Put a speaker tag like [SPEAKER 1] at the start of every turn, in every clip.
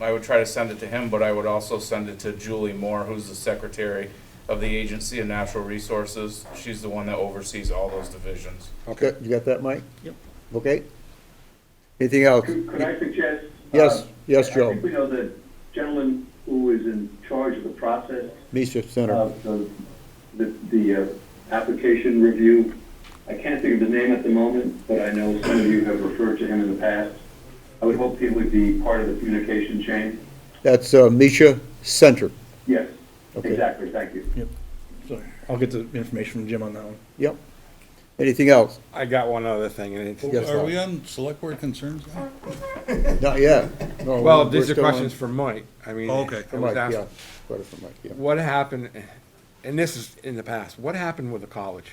[SPEAKER 1] I would try to send it to him, but I would also send it to Julie Moore, who's the secretary of the Agency of Natural Resources. She's the one that oversees all those divisions.
[SPEAKER 2] Okay, you got that, Mike?
[SPEAKER 3] Yep.
[SPEAKER 2] Okay? Anything else?
[SPEAKER 4] Could could I suggest?
[SPEAKER 2] Yes,
[SPEAKER 4] uh,
[SPEAKER 2] yes,
[SPEAKER 4] I
[SPEAKER 2] Joe,
[SPEAKER 4] think we know the gentleman who is in charge of the process
[SPEAKER 2] Misha Center.
[SPEAKER 4] of the, the, the uh, application review. I can't think of his name at the moment, but I know some of you have referred to him in the past. I would hope he would be part of the communication chain.
[SPEAKER 2] That's uh, Misha Center.
[SPEAKER 4] Yes,
[SPEAKER 2] Okay.
[SPEAKER 4] exactly, thank you.
[SPEAKER 3] So I'll get the information from Jim on that one.
[SPEAKER 2] Yep. Anything else?
[SPEAKER 5] I got one other thing, and it's.
[SPEAKER 2] Yes,
[SPEAKER 6] Are
[SPEAKER 2] Howard.
[SPEAKER 6] we on select board concerns now?
[SPEAKER 2] Not yet. No,
[SPEAKER 5] Well,
[SPEAKER 2] we're-
[SPEAKER 5] these
[SPEAKER 2] we're
[SPEAKER 5] are
[SPEAKER 2] still on-
[SPEAKER 5] questions for Mike. I mean.
[SPEAKER 6] Okay.
[SPEAKER 5] it
[SPEAKER 2] For
[SPEAKER 5] was
[SPEAKER 2] Mike,
[SPEAKER 5] asked,
[SPEAKER 2] yeah. Question for Mike, yeah.
[SPEAKER 5] What happened, and this is in the past, what happened with the college?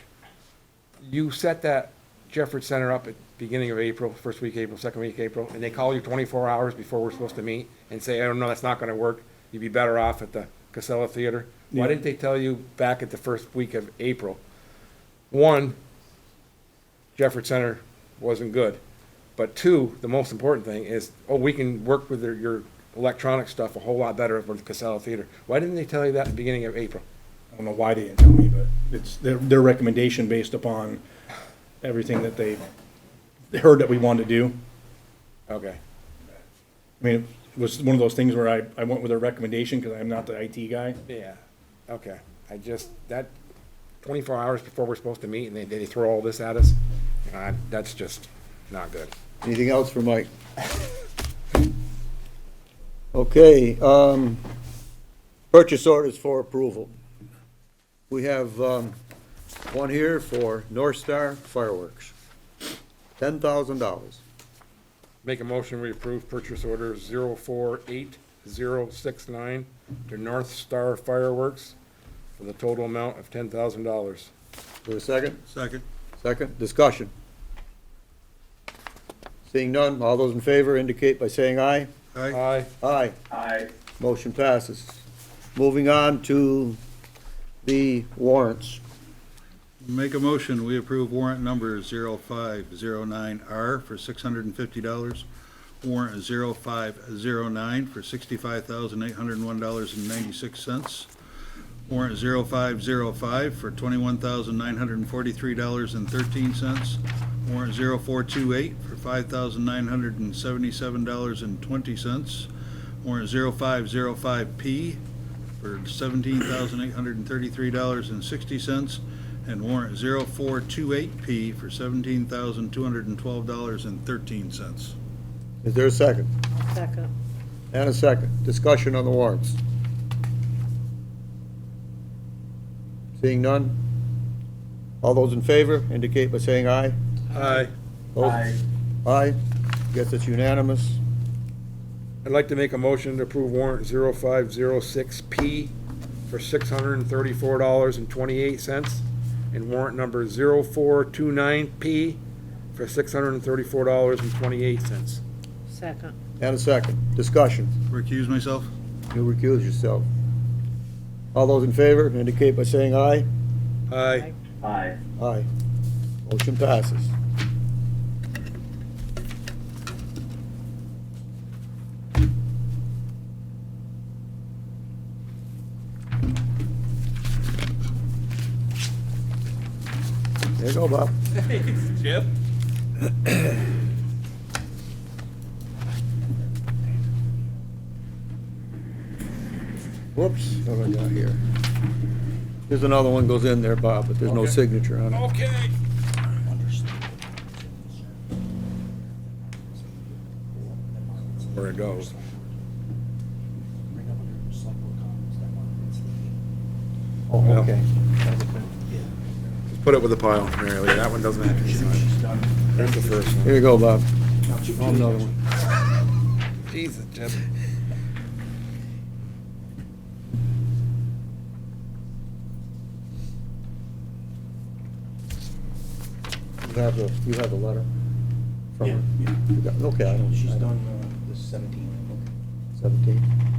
[SPEAKER 5] You set that Jefford Center up at beginning of April, first week of April, second week of April, and they call you twenty-four hours before we're supposed to meet and say, oh, no, that's not gonna work. You'd be better off at the Casella Theater. Why didn't they tell you back at the first week of April? One, Jefford Center wasn't good. But two, the most important thing is, oh, we can work with their- your electronic stuff a whole lot better with Casella Theater. Why didn't they tell you that at the beginning of April?
[SPEAKER 3] I don't know why they didn't tell me, but it's their, their recommendation based upon everything that they heard that we wanted to do.
[SPEAKER 5] Okay.
[SPEAKER 3] I mean, it was one of those things where I, I went with their recommendation because I'm not the IT guy.
[SPEAKER 5] Yeah. Okay. I just, that, twenty-four hours before we're supposed to meet and they, they throw all this at us, uh, that's just not good.
[SPEAKER 2] Anything else for Mike? Okay, um, purchase orders for approval. We have, um, one here for North Star Fireworks, ten thousand dollars.
[SPEAKER 5] Make a motion, we approve purchase order zero four eight zero six nine to North Star Fireworks for the total amount of ten thousand dollars.
[SPEAKER 2] Do a second?
[SPEAKER 6] Second.
[SPEAKER 2] Second, discussion. Seeing none, all those in favor indicate by saying aye.
[SPEAKER 6] Aye.
[SPEAKER 5] Aye.
[SPEAKER 2] Aye.
[SPEAKER 4] I,
[SPEAKER 2] Motion passes. Moving on to the warrants.
[SPEAKER 6] Make a motion, we approve warrant number 0509R for $650. Warrant 0509 for $65,801.96. Warrant 0505 for $21,943.13. Warrant 0428 for $5,977.20. Warrant 0505P for seventeen thousand eight hundred and thirty-three dollars and sixty cents, and warrant zero four two eight P for seventeen thousand two hundred and twelve dollars and thirteen cents.
[SPEAKER 2] Is there a second?
[SPEAKER 7] Second.
[SPEAKER 2] And a second. Discussion on the warrants. Seeing none? All those in favor indicate by saying aye.
[SPEAKER 5] Aye.
[SPEAKER 2] Those-
[SPEAKER 4] I,
[SPEAKER 2] Aye. Guess it's unanimous.
[SPEAKER 5] I'd like to make a motion to approve warrant 0506P for $634.28 and warrant number 0429P for $634.28.
[SPEAKER 7] Second.
[SPEAKER 2] And a second. Discussion.
[SPEAKER 6] Recuse myself?
[SPEAKER 2] You recuse yourself. All those in favor indicate by saying aye.
[SPEAKER 5] Aye.
[SPEAKER 4] I.
[SPEAKER 2] Aye. Motion passes. There you go, Bob.
[SPEAKER 3] Yep.
[SPEAKER 2] Whoops, what do I got here? There's another one goes in there, Bob, but there's no
[SPEAKER 5] Okay.
[SPEAKER 2] signature on it.
[SPEAKER 5] Okay. Where it goes.
[SPEAKER 2] Oh, okay.
[SPEAKER 5] Put it with the pile, Mary Lee. That one doesn't have to be signed. There's the first one.
[SPEAKER 2] Here you go, Bob. Oh, Another one.
[SPEAKER 5] Jesus, Jim.
[SPEAKER 2] You have the, you have the letter?
[SPEAKER 5] uh,
[SPEAKER 2] from her? You got- Okay. She's done the seventeenth. Seventeenth?